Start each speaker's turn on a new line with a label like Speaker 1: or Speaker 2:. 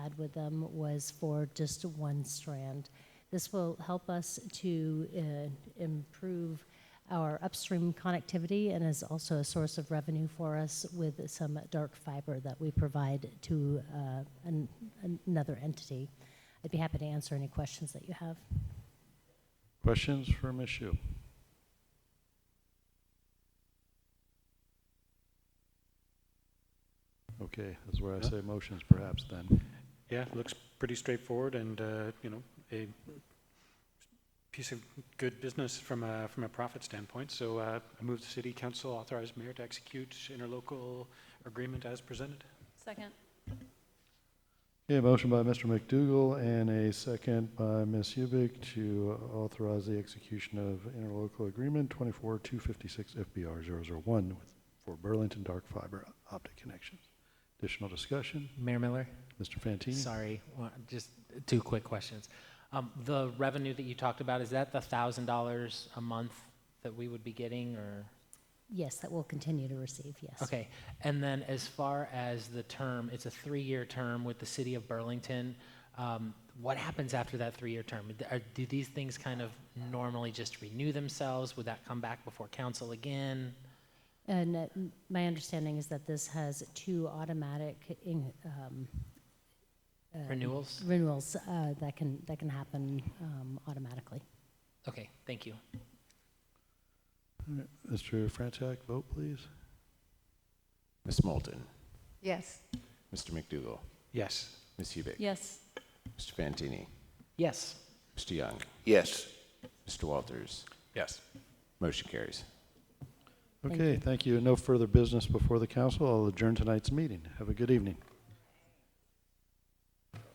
Speaker 1: with them was for just one strand. This will help us to uh, improve our upstream connectivity and is also a source of revenue for us with some dark fiber that we provide to uh, an, another entity. I'd be happy to answer any questions that you have.
Speaker 2: Questions for Ms. Shu? Okay, that's where I
Speaker 3: Yeah.
Speaker 2: say motions perhaps then.
Speaker 3: Yeah, looks pretty straightforward and, uh, you know, a piece of good business from a, from a profit standpoint. So uh, I move the city council authorize mayor to execute interlocal agreement as presented.
Speaker 4: Second.
Speaker 2: Okay, motion by Mr. McDougal and a second by Ms. Hubick to authorize the execution of interlocal agreement twenty-four two fifty-six FBR 001 with, for Burlington Dark Fiber Optic Connections. Additional discussion,
Speaker 5: Mayor Miller,
Speaker 2: Mr. Fantini?
Speaker 5: sorry, one- just two quick questions. Um, The revenue that you talked about, is that the thousand dollars a month that we would be getting or?
Speaker 1: Yes, that we'll continue to receive, yes.
Speaker 5: Okay, and then as far as the term, it's a three-year term with the city of Burlington. Um, What happens after that three-year term? Are- Do these things kind of normally just renew themselves? Would that come back before council again?
Speaker 1: And uh, m- my understanding is that this has two automatic in- um, uh,
Speaker 5: Renewals?
Speaker 1: renewals uh, that can, that can happen um, automatically.
Speaker 5: Okay, thank you.
Speaker 2: Mr. Frantak, vote please.
Speaker 6: Ms. Moulton,
Speaker 4: Yes.
Speaker 6: Mr. McDougall,
Speaker 3: Yes.
Speaker 6: Ms. Hubick,
Speaker 4: Yes.
Speaker 6: Mr. Fantini,
Speaker 5: Yes.
Speaker 6: Mr. Young,
Speaker 7: Yes.
Speaker 6: Mr. Walters.
Speaker 3: Yes.
Speaker 6: Motion carries.
Speaker 1: Thank
Speaker 2: Okay, thank you. No further business before the council. I'll adjourn tonight's meeting. Have a good evening.